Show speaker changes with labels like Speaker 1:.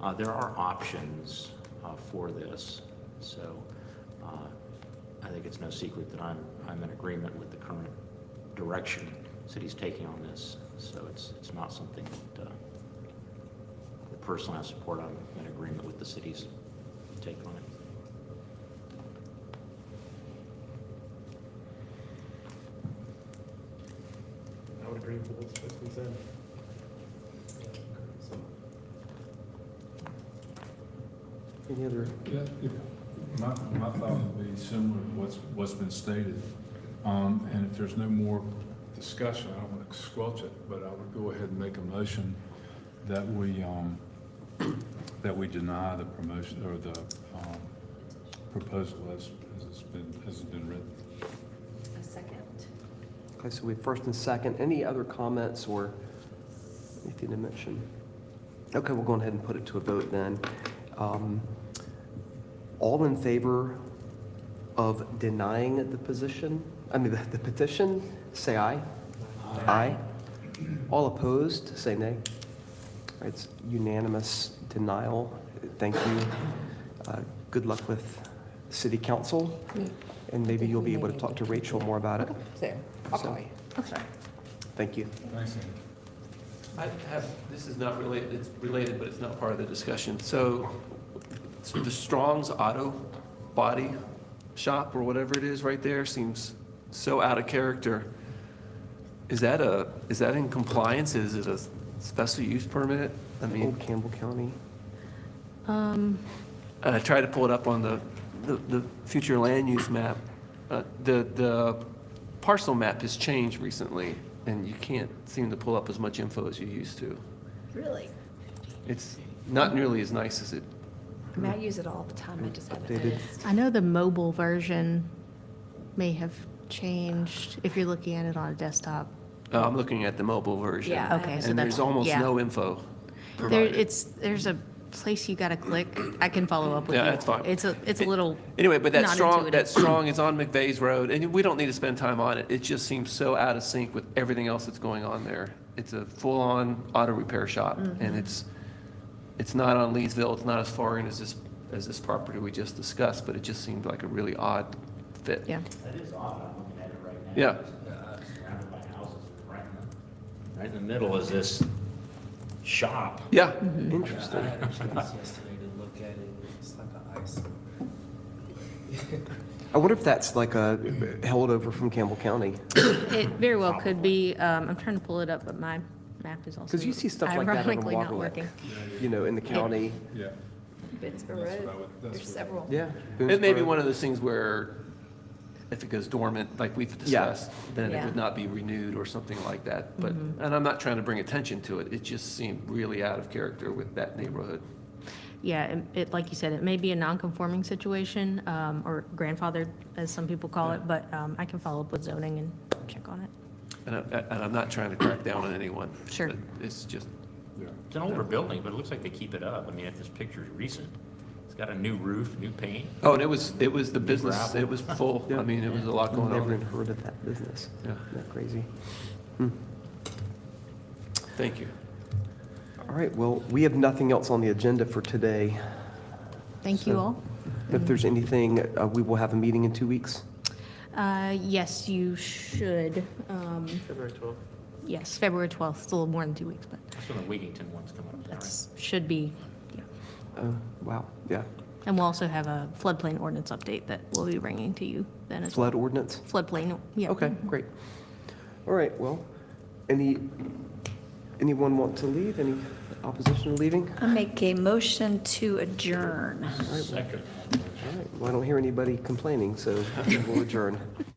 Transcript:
Speaker 1: Uh, There are options uh, for this, so uh, I think it's no secret that I'm, I'm in agreement with the current direction city's taking on this, so it's, it's not something that uh, that personally I support, I'm in agreement with the city's take on it.
Speaker 2: I would agree with what's what's been said. Any other,
Speaker 3: Yeah, it- My, my thought would be similar to what's, what's been stated. Um, and if there's no more discussion, I don't want to squelch it, but I would go ahead and make a motion that we, um, that we deny the promotion, or the, um, proposal as, as it's been, as it's been written.
Speaker 4: A second.
Speaker 2: okay, so we have first and second, any other comments or anything to mention? Okay, we'll go ahead and put it to a vote then. Um, All in favor of denying the position, I mean, the the petition, say aye. Aye. All opposed, say nay. It's unanimous denial. Thank you. Uh, Good luck with city council,
Speaker 5: Mm,
Speaker 2: and maybe you'll be able to talk to Rachel more about it.
Speaker 5: So, I'll call you.
Speaker 2: Thank you.
Speaker 3: Thanks, Andy.
Speaker 6: I have, this is not related, it's related, but it's not part of the discussion. So, so the Strong's Auto Body Shop or whatever it is right there seems so out of character. Is that a, is that in compliance? Is it a special use permit? I mean,
Speaker 2: Old Campbell County.
Speaker 6: I tried to pull it up on the, the, the future land use map. Uh, The, the parcel map has changed recently and you can't seem to pull up as much info as you used to.
Speaker 4: Really?
Speaker 6: It's not nearly as nice as it,
Speaker 4: I mean, I use it all the time, I just haven't
Speaker 2: They did.
Speaker 4: noticed.
Speaker 7: I know the mobile version may have changed if you're looking at it on a desktop.
Speaker 6: uh, I'm looking at the mobile version.
Speaker 4: Yeah.
Speaker 7: Okay, so
Speaker 6: And
Speaker 7: that's,
Speaker 6: there's almost
Speaker 7: yeah.
Speaker 6: no info
Speaker 7: There,
Speaker 6: provided.
Speaker 7: it's, there's a place you gotta click. I can follow up with you.
Speaker 6: Yeah, that's fine.
Speaker 7: It's a, it's a little.
Speaker 6: Anyway, but that
Speaker 7: not
Speaker 6: strong, that
Speaker 7: intuitive.
Speaker 6: strong is on McVeigh's Road and we don't need to spend time on it. It just seems so out of sync with everything else that's going on there. It's a full-on auto repair shop
Speaker 7: Mm-hmm.
Speaker 6: and it's, it's not on Leesville. It's not as far in as this, as this property we just discussed, but it just seemed like a really odd fit.
Speaker 7: Yeah.
Speaker 1: That is odd, I'm looking at it right now.
Speaker 6: Yeah.
Speaker 1: Uh, Surrounded by houses, right in the, right in the middle is this shop.
Speaker 6: Yeah,
Speaker 7: Mm-hmm.
Speaker 2: Interesting.
Speaker 8: I had a chance yesterday to look at it, it's like an ice.
Speaker 2: I wonder if that's like a held over from Campbell County.
Speaker 7: It very well could be. Um, I'm trying to pull it up, but my map is also.
Speaker 2: Because you see stuff like that on
Speaker 7: ironically not
Speaker 2: Waterloo,
Speaker 7: working.
Speaker 2: you know, in the county.
Speaker 3: Yeah.
Speaker 4: Bitsborough
Speaker 3: That's what I
Speaker 4: Road,
Speaker 3: would- that's
Speaker 4: there's
Speaker 3: what I
Speaker 4: several.
Speaker 2: Yeah.
Speaker 6: It may be one of those things where if it goes dormant, like we've discussed, then it
Speaker 7: Yeah. Mm-hmm.
Speaker 6: would not be renewed or something like that. But, and I'm not trying to bring attention to it, it just seemed really out of character with that neighborhood.
Speaker 7: Yeah, it- it, like you said, it may be a non-conforming situation, um, or grandfathered, as some people call it, but, um, I can follow up with zoning and check on it.
Speaker 6: And I- and I'm not trying to crack down on anyone.
Speaker 7: Sure.
Speaker 6: but It's just,
Speaker 3: Yeah.
Speaker 1: It's an older building, but it looks like they keep it up. I mean, if this picture's recent, it's got a new roof, new paint.
Speaker 6: oh, and it was, it was the business,
Speaker 1: Gravel.
Speaker 6: it was full. I mean, it was a lot going
Speaker 2: Never
Speaker 6: on.
Speaker 2: even heard of that business.
Speaker 6: Yeah.
Speaker 2: Isn't that crazy?
Speaker 6: Thank you.
Speaker 2: All right, well, we have nothing else on the agenda for today.
Speaker 7: Thank you
Speaker 2: So-
Speaker 7: all. Mm-hmm.
Speaker 2: If there's anything, uh, we will have a meeting in two weeks.
Speaker 7: Uh, Yes, you should. um,
Speaker 2: February 12th.
Speaker 7: Yes, February 12th, it's a little more than two weeks, but
Speaker 1: That's when the Wigington one's coming up, right?
Speaker 7: that's, should be, yeah.
Speaker 2: Oh, wow, yeah.
Speaker 7: And we'll also have a floodplain ordinance update that we'll be bringing to you then as well.
Speaker 2: Flood ordinance?
Speaker 7: Floodplain, yeah. Mm-hmm.
Speaker 2: Okay, great. All right, well, any, anyone want to leave? Any opposition to leaving?
Speaker 4: I make a motion to adjourn.
Speaker 1: Second.
Speaker 2: All right, well, I don't hear anybody complaining, so we'll adjourn.